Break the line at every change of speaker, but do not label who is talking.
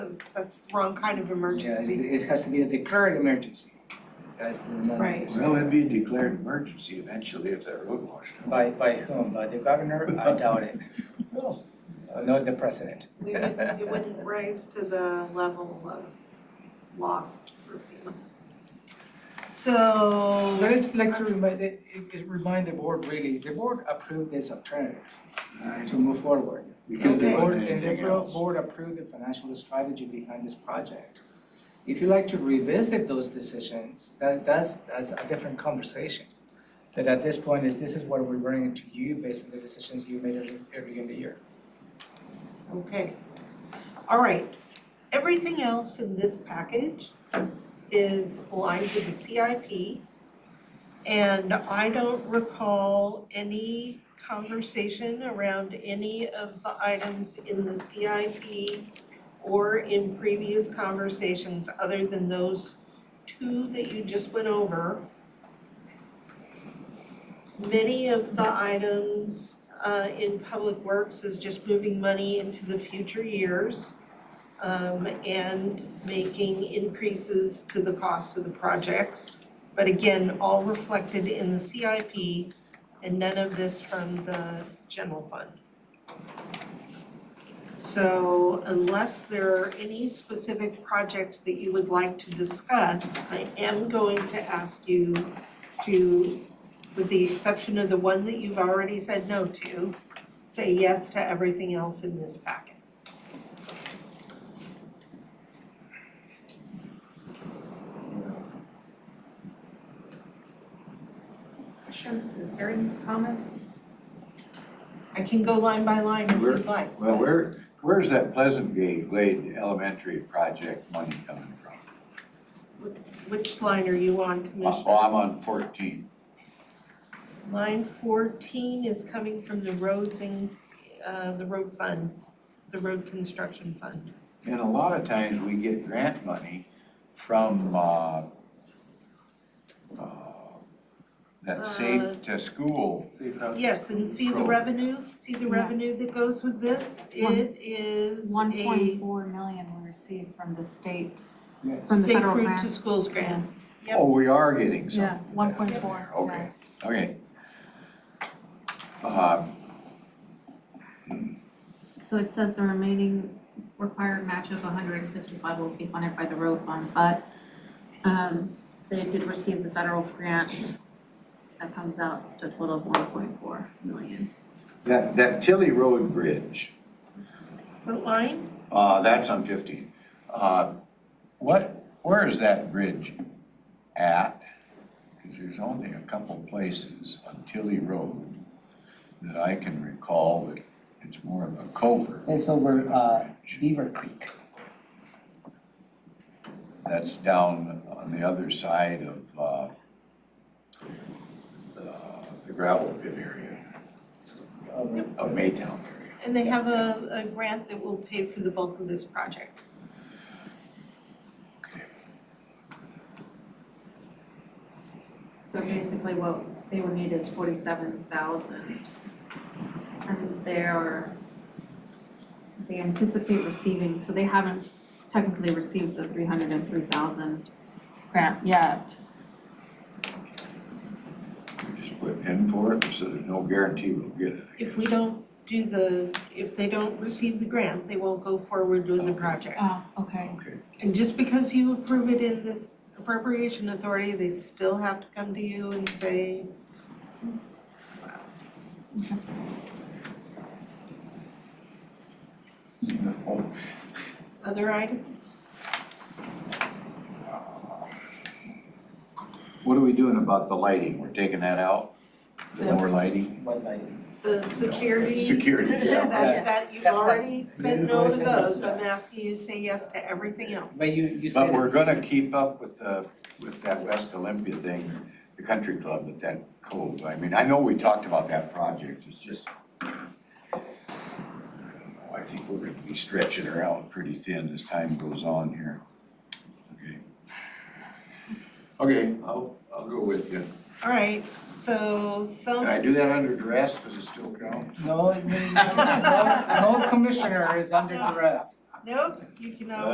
that's the wrong kind of emergency.
Yeah, it's- it has to be a declared emergency. That's the, not-
Right.
Well, it'd be a declared emergency eventually if that road washed out.
By, by whom? By the governor? I doubt it.
No.
Uh, Not the president.
We wouldn't, you wouldn't raise to the level of loss for FEMA. So.
But it's like to remind, it, it remind the board really, the board approved this alternative to move forward.
Because
The
there
board,
wasn't
and the
anything
bro-
else.
board approved the financial strategy behind this project. If you like to revisit those decisions, that, that's, that's a different conversation. But at this point is, this is what we're bringing to you based on the decisions you made early- early in the year.
Okay. All right. Everything else in this package is aligned with the CIP. And I don't recall any conversation around any of the items in the CIP or in previous conversations other than those two that you just went over. Many of the items uh in Public Works is just moving money into the future years. um, and making increases to the cost of the projects. But again, all reflected in the CIP and none of this from the general fund. So unless there are any specific projects that you would like to discuss, I am going to ask you to with the exception of the one that you've already said no to, say yes to everything else in this packet.
Questions, concerns, comments?
I can go line by line if
Where-
you'd like.
Well,
but-
where, where's that Pleasant Gate Glade Elementary project money coming from?
Which line are you on,
Oh,
Commissioner?
I'm on fourteen.
Line fourteen is coming from the roads and, uh, the road fund, the road construction fund.
And a lot of times we get grant money from, uh, uh,
Uh,
that safe to school.
Yes, and see the
Pro-
revenue, see the
Yeah.
revenue that goes with this?
One-
It is
One point
a
four million we received from the state,
Yes.
from the
safe
federal
route
grant.
to schools grant. Yep.
Oh, we are getting some.
Yeah, one point four,
Okay, okay. Um,
So it says the remaining required match of hundred and sixty-five will be funded by the road fund, but um they did receive the federal grant that comes out to a total of one point four million.
That, that Tilly Road Bridge.
What line?
Uh, that's on fifteen. Uh, what, where is that bridge at? Cause there's only a couple places on Tilly Road that I can recall that it's more of a culvert.
It's over, uh, Beaver Creek.
That's down on the other side of, uh, uh, the gravel pit area,
over-
of Maytown area.
And they have a, a grant that will pay for the bulk of this project.
Okay.
So basically what they would need is forty-seven thousand. And they're, they anticipate receiving, so they haven't technically received the three hundred and three thousand grant yet.
We're just putting in for it, so there's no guarantee we'll get it.
If we don't do the, if they don't receive the grant, they won't go forward with the
Okay.
project.
Oh, okay.
Okay,
And just because you approve it in this appropriation authority, they still have to come to you and say,
no.
other items?
What are we doing about the lighting? We're taking that out? The
Yeah.
more lighting?
One night.
The security,
Security, yeah.
that, that you've
Yeah.
already said
Yeah.
no to
Yeah.
those, I'm asking you to say yes to everything else.
But you, you said.
But we're
it
gonna
was-
keep up with the, with that West Olympia thing, the country club at that cove. I mean, I know we talked about that project, it's just, I don't know, I think we're gonna be stretching her out pretty thin as time goes on here. Okay. Okay, I'll, I'll go with you.
All right, so thumbs.
Can I do that under duress? Does it still count?
No, no, no commissioner is under duress.
Nope, you can always